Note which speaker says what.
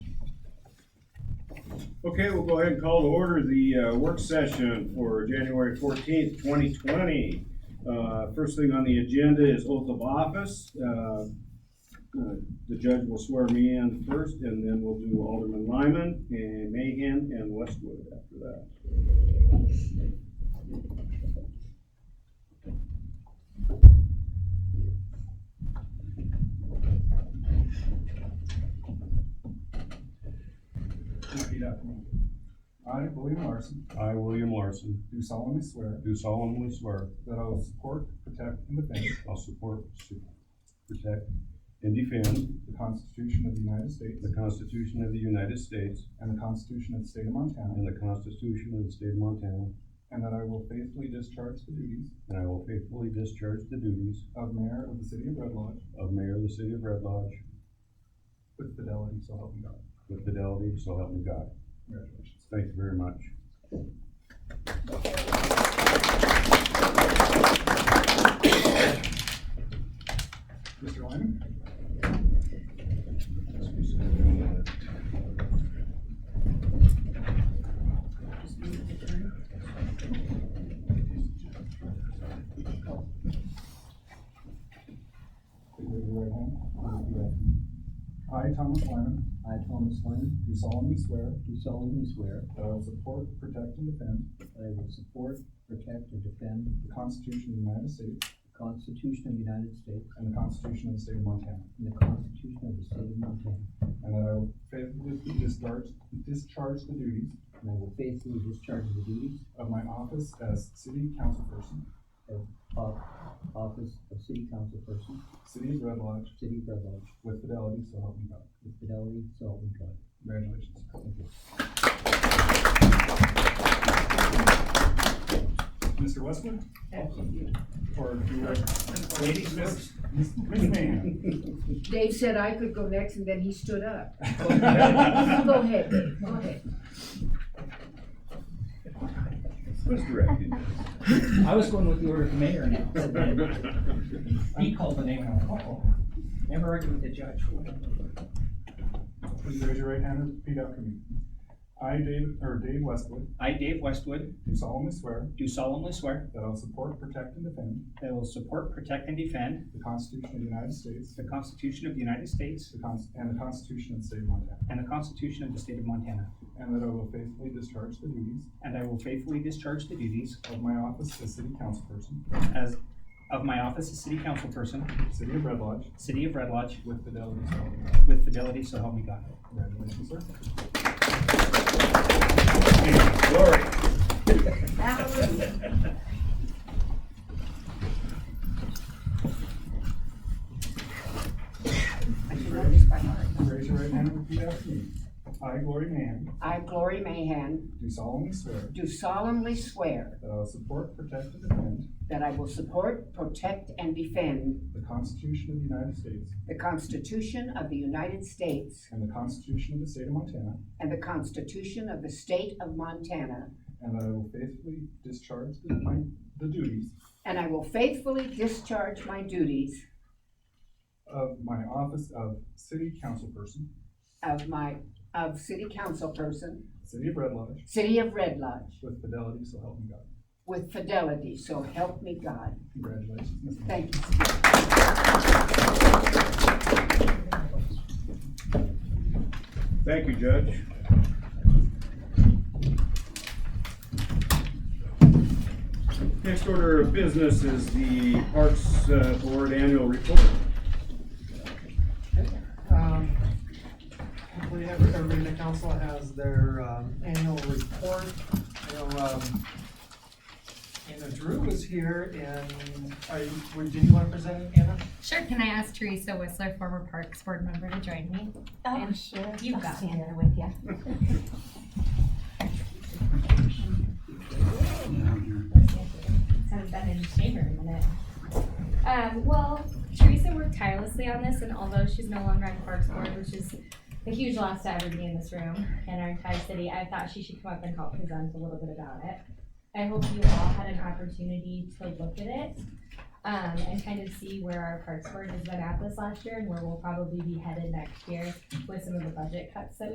Speaker 1: Okay, we'll go ahead and call to order the uh, work session for January fourteenth, twenty twenty. Uh, First thing on the agenda is oath of office. Uh, uh, The judge will swear me in first, and then we'll do Alderman Lyman and Mahan and Westwood after that.
Speaker 2: Repeat after me. I, William Larson,
Speaker 3: I, William Larson,
Speaker 2: do solemnly swear
Speaker 3: do solemnly swear
Speaker 2: that I will support, protect, and defend
Speaker 3: I'll support, su- protect, and defend
Speaker 2: the Constitution of the United States
Speaker 3: the Constitution of the United States
Speaker 2: and the Constitution of the State of Montana,
Speaker 3: and the Constitution of the State of Montana,
Speaker 2: and that I will faithfully discharge the duties
Speaker 3: and I will faithfully discharge the duties
Speaker 2: of Mayor of the City of Red Lodge
Speaker 3: of Mayor of the City of Red Lodge
Speaker 2: with fidelity, so help me God.
Speaker 3: with fidelity, so help me God.
Speaker 2: Congratulations.
Speaker 3: Thank you very much.
Speaker 2: Mr. Lyman? Raise your right hand. Repeat after me. I, Thomas Lyman,
Speaker 4: I, Thomas Lane,
Speaker 2: do solemnly swear
Speaker 4: do solemnly swear
Speaker 2: that I will support, protect, and defend
Speaker 4: that I will support, protect, and defend
Speaker 2: the Constitution of the United States
Speaker 4: the Constitution of the United States
Speaker 2: and the Constitution of the State of Montana,
Speaker 4: and the Constitution of the State of Montana,
Speaker 2: and that I will faithfully discharge, discharge the duties
Speaker 4: and I will faithfully discharge the duties
Speaker 2: of my office as city councilperson,
Speaker 4: of of office of City Council Person,
Speaker 2: City of Red Lodge,
Speaker 4: City of Red Lodge,
Speaker 2: with fidelity, so help me God.
Speaker 4: with fidelity, so help me God.
Speaker 2: Congratulations.
Speaker 4: Thank you.
Speaker 2: Mr. Westwood? Or your lady, Miss, Miss Miss Mahan?
Speaker 5: Dave said I could go next, and then he stood up. Go
Speaker 2: Mr.
Speaker 5: ahead, go ahead.
Speaker 1: Who's directing?
Speaker 6: I was going with the order of the mayor now. He called the name and I went, oh, never argued with the judge.
Speaker 2: Please raise your right hand and repeat after me. I, David, or Dave Westwood,
Speaker 6: I, Dave Westwood,
Speaker 2: do solemnly swear
Speaker 6: do solemnly swear
Speaker 2: that I will support, protect, and defend
Speaker 6: that I will support, protect, and defend
Speaker 2: the Constitution of the United States
Speaker 6: the Constitution of the United States
Speaker 2: the Cons- and the Constitution of the State of Montana,
Speaker 6: and the Constitution of the State of Montana,
Speaker 2: and that I will faithfully discharge the duties
Speaker 6: and I will faithfully discharge the duties
Speaker 2: of my office as city councilperson,
Speaker 6: as of my office as city councilperson,
Speaker 2: City of Red Lodge,
Speaker 6: City of Red Lodge,
Speaker 2: with fidelity, so help me God.
Speaker 6: with fidelity, so help me God.
Speaker 2: Congratulations, sir.
Speaker 1: Glory.
Speaker 2: Raise your right hand and repeat after me. I, Glory Mann,
Speaker 5: I, Glory Mahan,
Speaker 2: do solemnly swear
Speaker 5: do solemnly swear
Speaker 2: that I will support, protect, and defend
Speaker 5: that I will support, protect, and defend
Speaker 2: the Constitution of the United States
Speaker 5: the Constitution of the United States
Speaker 2: and the Constitution of the State of Montana,
Speaker 5: and the Constitution of the State of Montana,
Speaker 2: and that I will faithfully discharge the my- the duties
Speaker 5: and I will faithfully discharge my duties
Speaker 2: of my office of City Councilperson,
Speaker 5: of my, of city councilperson,
Speaker 2: City of Red Lodge,
Speaker 5: City of Red Lodge,
Speaker 2: with fidelity, so help me God.
Speaker 5: with fidelity, so help me God.
Speaker 2: Congratulations, Ms. Mann.
Speaker 5: Thank you.
Speaker 1: Thank you, Judge. Next order of business is the Parks uh, Board Annual Report.
Speaker 7: Um, Hopefully, every- everybody in the council has their um, annual report. I know, um, Anna Drew was here, and are you, would- did you want to present it, Anna?
Speaker 8: Sure, can I ask Teresa Whistler, former Parks Board member, to join me?
Speaker 9: Oh,
Speaker 8: And
Speaker 9: sure.
Speaker 8: you
Speaker 9: I'll
Speaker 8: got
Speaker 9: stand
Speaker 8: it.
Speaker 9: there with you. Haven't been in the chamber in a minute.
Speaker 8: Um, well, Teresa worked tirelessly on this, and although she's no longer on Parks Board, which is a huge loss to everybody in this room and our entire city, I thought she should come up and help present a little bit about it. I hope you all had an opportunity to look at it, um, and kind of see where our Parks Board has been at this last year and where we'll probably be headed next year with some of the budget cuts that